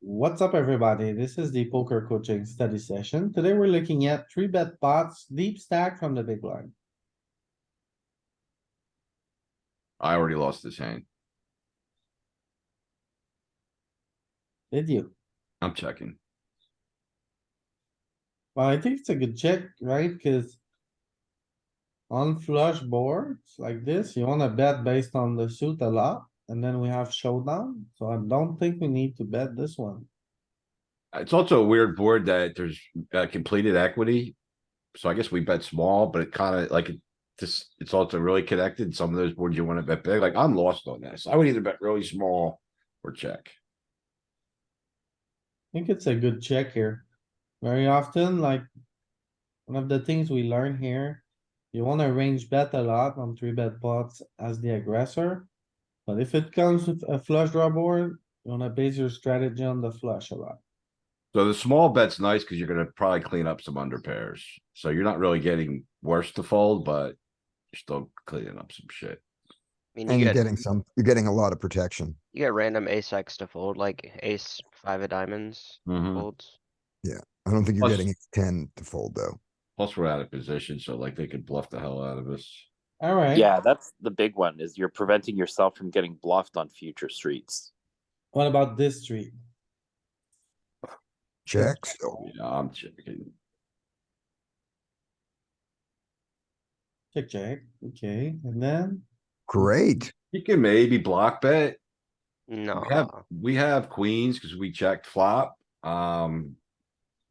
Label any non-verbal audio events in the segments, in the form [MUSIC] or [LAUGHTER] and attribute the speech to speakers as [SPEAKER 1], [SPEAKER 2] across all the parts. [SPEAKER 1] What's up, everybody? This is the poker coaching study session. Today we're looking at three bet pots, deep stack from the big blind.
[SPEAKER 2] I already lost this hand.
[SPEAKER 1] Did you?
[SPEAKER 2] I'm checking.
[SPEAKER 1] Well, I think it's a good check, right? Cuz. On flush boards like this, you wanna bet based on the suit a lot, and then we have showdown, so I don't think we need to bet this one.
[SPEAKER 2] It's also a weird board that there's uh, completed equity. So I guess we bet small, but it kind of like it just, it's also really connected. Some of those boards you want to bet big, like I'm lost on this. I would either bet really small or check.
[SPEAKER 1] I think it's a good check here. Very often, like. One of the things we learn here, you wanna range bet a lot on three bet pots as the aggressor. But if it comes with a flush draw board, you wanna base your strategy on the flush a lot.
[SPEAKER 2] So the small bet's nice because you're gonna probably clean up some under pairs. So you're not really getting worse to fold, but you're still cleaning up some shit.
[SPEAKER 3] I mean,
[SPEAKER 4] And
[SPEAKER 3] you
[SPEAKER 4] you're
[SPEAKER 3] get,
[SPEAKER 4] getting some, you're getting a lot of protection.
[SPEAKER 3] you get random ace X to fold, like ace five of diamonds
[SPEAKER 2] Mhm.
[SPEAKER 3] folds.
[SPEAKER 4] I don't think you're
[SPEAKER 2] Plus-
[SPEAKER 4] getting ace ten to fold though.
[SPEAKER 2] Plus, we're out of position, so like they could bluff the hell out of us.
[SPEAKER 1] Alright.
[SPEAKER 5] Yeah, that's the big one is you're preventing yourself from getting bluffed on future streets.
[SPEAKER 1] What about this tree?
[SPEAKER 4] Check still.
[SPEAKER 2] Yeah, I'm checking.
[SPEAKER 1] Check, check, okay, and then,
[SPEAKER 4] Great.
[SPEAKER 2] You can maybe block bet.
[SPEAKER 3] No,
[SPEAKER 2] We have, we have queens because we checked flop. Um.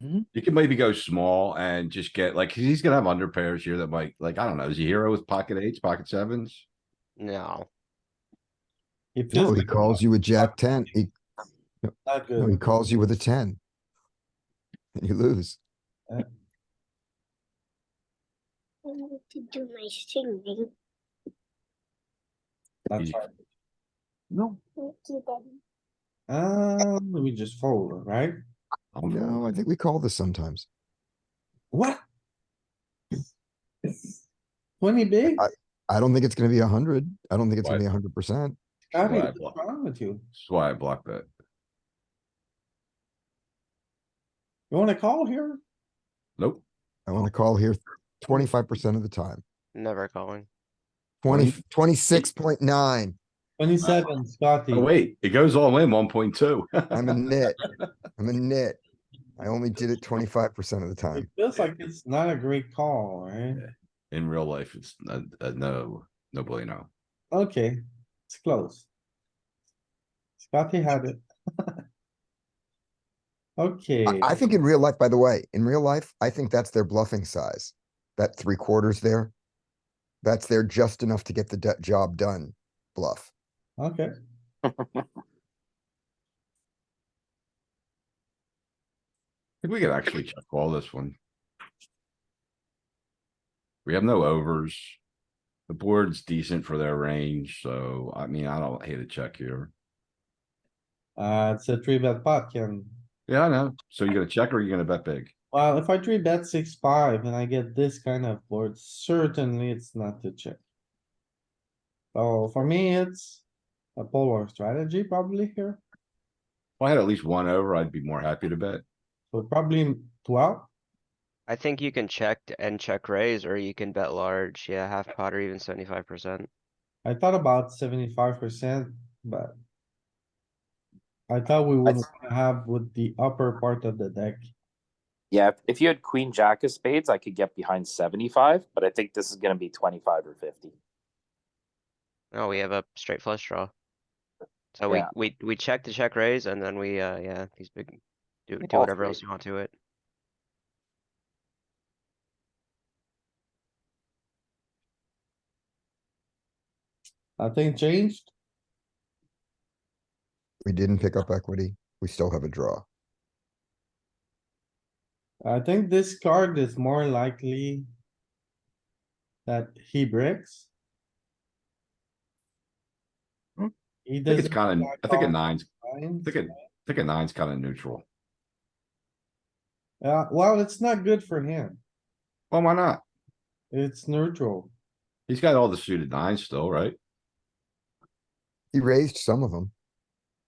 [SPEAKER 1] Mhm.
[SPEAKER 2] You can maybe go small and just get like, 'cause he's gonna have under pairs here that might, like, I don't know, is he hero with pocket eights, pocket sevens?
[SPEAKER 3] no.
[SPEAKER 1] it
[SPEAKER 4] No,
[SPEAKER 1] feels
[SPEAKER 4] he calls you with jack ten. He,
[SPEAKER 1] not
[SPEAKER 4] no, he
[SPEAKER 1] good.
[SPEAKER 4] calls you with a ten. And you lose.
[SPEAKER 6] I wanted to do my singing.
[SPEAKER 1] That's right.
[SPEAKER 2] No.
[SPEAKER 6] Thank you, Daddy.
[SPEAKER 1] Um, we just fold, right?
[SPEAKER 4] No, I think we call this sometimes.
[SPEAKER 1] What? Twenty big?
[SPEAKER 4] I- I don't think it's gonna be a hundred. I don't think it's gonna
[SPEAKER 2] Why?
[SPEAKER 4] be a hundred percent.
[SPEAKER 1] Scotty,
[SPEAKER 2] Right.
[SPEAKER 1] what's wrong with you?
[SPEAKER 2] That's why I block bet.
[SPEAKER 1] You wanna call here?
[SPEAKER 2] Nope.
[SPEAKER 4] I wanna call here twenty-five percent of the time.
[SPEAKER 3] Never calling.
[SPEAKER 4] Twenty, twenty-six point nine.
[SPEAKER 1] Twenty-seven, Scotty.
[SPEAKER 2] Oh, wait, it goes all in one point two. [LAUGHS]
[SPEAKER 4] I'm a nit. I'm a nit. I only did it twenty-five percent of the
[SPEAKER 1] It
[SPEAKER 4] time.
[SPEAKER 1] feels like it's not a great call, right?
[SPEAKER 2] In real life, it's a, a no, no bueno.
[SPEAKER 1] Okay, it's close. Scotty had it. [LAUGHS] Okay.
[SPEAKER 4] I, I think in real life, by the way, in real life, I think that's their bluffing size. That three quarters there. That's there just enough to get the do- job done bluff.
[SPEAKER 1] Okay.
[SPEAKER 2] I think we could actually check all this one. We have no overs. The board's decent for their range, so I mean, I don't hate a check here.
[SPEAKER 1] Uh, it's a three bet pot, Ken.
[SPEAKER 2] Yeah, I know. So you're gonna check or you're gonna bet big?
[SPEAKER 1] Well, if I three bet six, five, and I get this kind of board, certainly it's not to check. So for me, it's a polar strategy probably here,
[SPEAKER 2] If I had at least one over, I'd be more happy to bet.
[SPEAKER 1] so probably twelve.
[SPEAKER 3] I think you can check and check raise, or you can bet large. Yeah, half pot or even seventy-five percent.
[SPEAKER 1] I thought about seventy-five percent, but. I thought we would wanna have with the upper part of the deck.
[SPEAKER 5] Yeah, if- if you had queen jack of spades, I could get behind 75, but I think this is going to be 25 or 50.
[SPEAKER 3] No, Oh, we have a straight flush draw. So we,
[SPEAKER 5] Yeah.
[SPEAKER 3] we, we check the check raise and then we, uh, yeah, these big, do, do
[SPEAKER 5] All
[SPEAKER 3] whatever
[SPEAKER 5] three.
[SPEAKER 3] else you want to it.
[SPEAKER 1] Nothing changed.
[SPEAKER 4] We didn't pick up equity. We still have a draw.
[SPEAKER 1] I think this card is more likely. That he breaks.
[SPEAKER 2] Hmm.
[SPEAKER 1] He
[SPEAKER 2] I think it's
[SPEAKER 1] doesn't.
[SPEAKER 2] kind of,
[SPEAKER 1] block
[SPEAKER 2] I think a
[SPEAKER 1] all
[SPEAKER 2] nine's, I
[SPEAKER 1] lines.
[SPEAKER 2] think a, I think a nine's kind of neutral.
[SPEAKER 1] Uh, well, it's not good for him.
[SPEAKER 2] Well, why not?
[SPEAKER 1] It's neutral.
[SPEAKER 2] He's got all the suited nines still, right?
[SPEAKER 4] He raised some of them.